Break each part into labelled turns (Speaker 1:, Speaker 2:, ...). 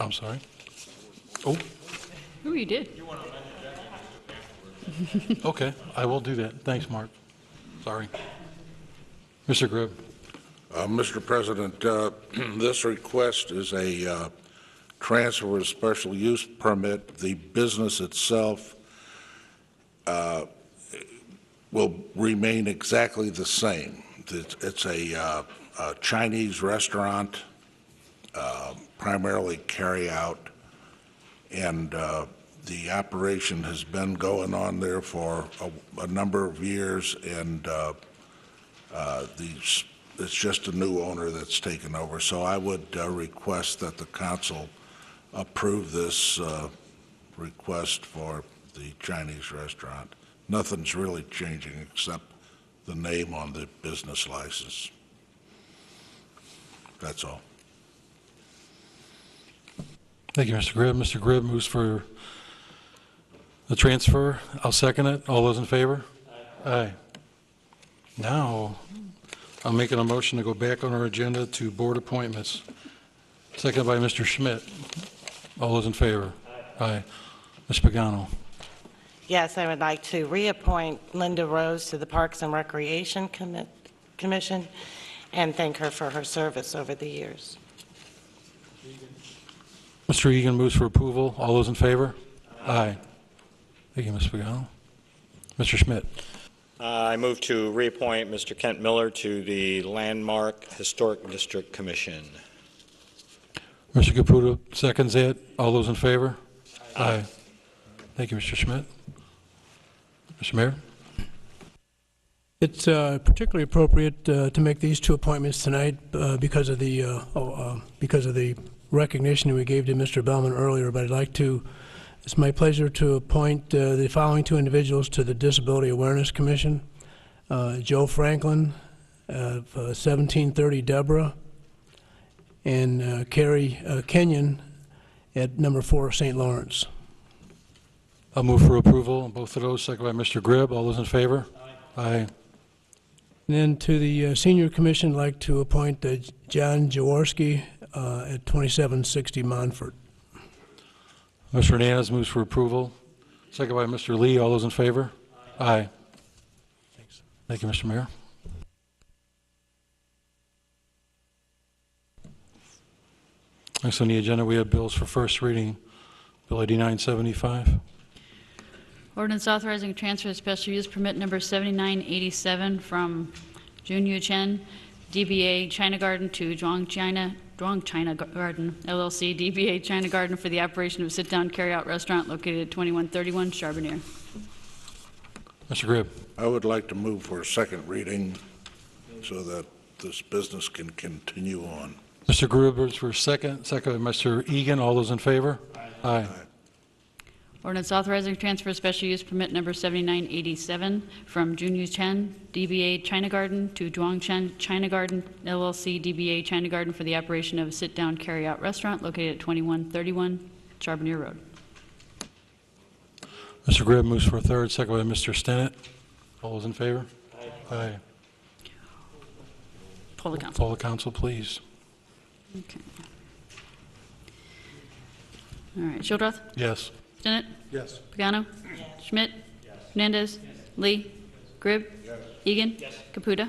Speaker 1: I'm sorry? Oh,
Speaker 2: Ooh, you did.
Speaker 1: okay, I will do that. Thanks, Mark. Sorry. Mr. Gribb,
Speaker 3: Uh, Mr. President, uh, this request is a uh, transfer of special use permit. The business itself uh, will remain exactly the same. It's it's a uh, a Chinese restaurant, uh, primarily carry-out, and uh, the operation has been going on there for a- a number of years, and uh, uh, these, it's just a new owner that's taken over. So I would uh, request that the council approve this uh, request for the Chinese restaurant. Nothing's really changing except the name on the business license. That's all.
Speaker 1: thank you, Mr. Gribb. Mr. Gribb moves for the transfer. I'll second it. All those in favor? Aye. Now, I'm making a motion to go back on our agenda to board appointments. Seconded by Mr. Schmidt. All those in favor? Aye. Ms. Pagano.
Speaker 4: Yes, I would like to reappoint Linda Rose to the Parks and Recreation Commit- Commission and thank her for her service over the years.
Speaker 1: Mr. Egan moves for approval. All those in favor? Aye. Thank you, Ms. Pagano. Mr. Schmidt,
Speaker 5: Uh, I move to reappoint Mr. Kent Miller to the Landmark Historic District Commission.
Speaker 1: Mr. Caputa seconds it. All those in favor? Aye. Thank you, Mr. Schmidt. Mr. Mayor?
Speaker 6: It's uh, particularly appropriate uh, to make these two appointments tonight uh, because of the, uh, oh, uh, because of the recognition we gave to Mr. Bellman earlier, but I'd like to, it's my pleasure to appoint uh, the following two individuals to the Disability Awareness Commission. Uh, Joe Franklin, uh, of, uh, 1730 Deborah, and uh, Carrie uh, Kenyon at number four St. Lawrence.
Speaker 1: I'll move for approval on both of those, seconded by Mr. Gribb. All those in favor? Aye.
Speaker 6: And Then to the uh, Senior Commission, I'd like to appoint uh, John Jaworski uh, at 2760 Monfort.
Speaker 1: Mr. Hernandez moves for approval, seconded by Mr. Lee. All those in favor? Aye. Thank you, Mr. Mayor. Next on the agenda, we have bills for first reading. Bill 8975.
Speaker 2: Ordinance authorizing transfer of special use permit number 7987 from Jun Yu Chen, DBA China Garden to Zhuang China, Zhuang China Garden LLC, DBA China Garden for the operation of sit-down carry-out restaurant located at 2131 Charbonneir.
Speaker 1: Mr. Gribb,
Speaker 3: I would like to move for a second reading so that this business can continue on.
Speaker 1: Mr. Gribb is for second, seconded by Mr. Egan. All those in favor? Aye.
Speaker 2: Ordinance authorizing transfer of special use permit number 7987 from Jun Yu Chen, DBA China Garden to Zhuang Chen China Garden LLC, DBA China Garden for the operation of a sit-down carry-out restaurant located at 2131 Charbonneir Road.
Speaker 1: Mr. Gribb moves for third, seconded by Mr. Stennett. All those in favor? Aye.
Speaker 2: Poll the council.
Speaker 1: Poll the council, please.
Speaker 2: Okay. All right, Shildroth,
Speaker 1: Yes.
Speaker 2: Stennett,
Speaker 1: Yes.
Speaker 2: Pagano, Schmidt, Hernandez, Lee, Gribb, Egan, Caputa.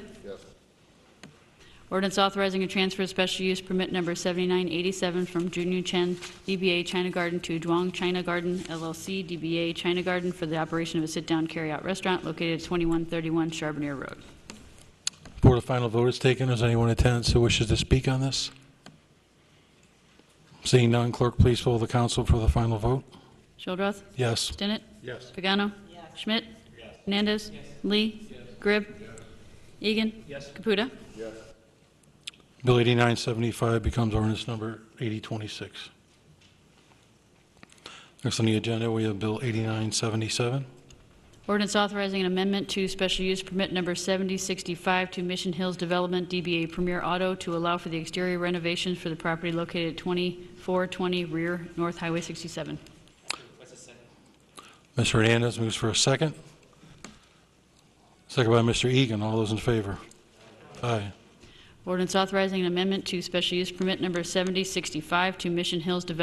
Speaker 2: Ordinance authorizing a transfer of special use permit number 7987 from Junior Chen, DBA China Garden to Zhuang China Garden LLC, DBA China Garden for the operation of a sit-down carry-out restaurant located at 2131 Charbonneir Road.
Speaker 1: Before the final vote is taken, is anyone in attendance who wishes to speak on this? Seeing none, clerk, please poll the council for the final vote.
Speaker 2: Shildroth,
Speaker 1: Yes.
Speaker 2: Stinnett,
Speaker 1: Yes.
Speaker 2: Pagano, Schmidt, Hernandez, Lee, Gribb, Egan, Caputa.
Speaker 1: Bill 8975 becomes ordinance number 8026. Next on the agenda, we have Bill 8977.
Speaker 2: Ordinance authorizing an amendment to special use permit number 7065 to Mission Hills Development DBA Premier Auto to allow for the exterior renovations for the property located at 2420 rear North Highway 67.
Speaker 1: Mr. Hernandez moves for a second. Second by Mr. Egan. All those in favor? Aye.
Speaker 2: Ordinance authorizing an amendment to special use permit number 7065 to Mission Hills Development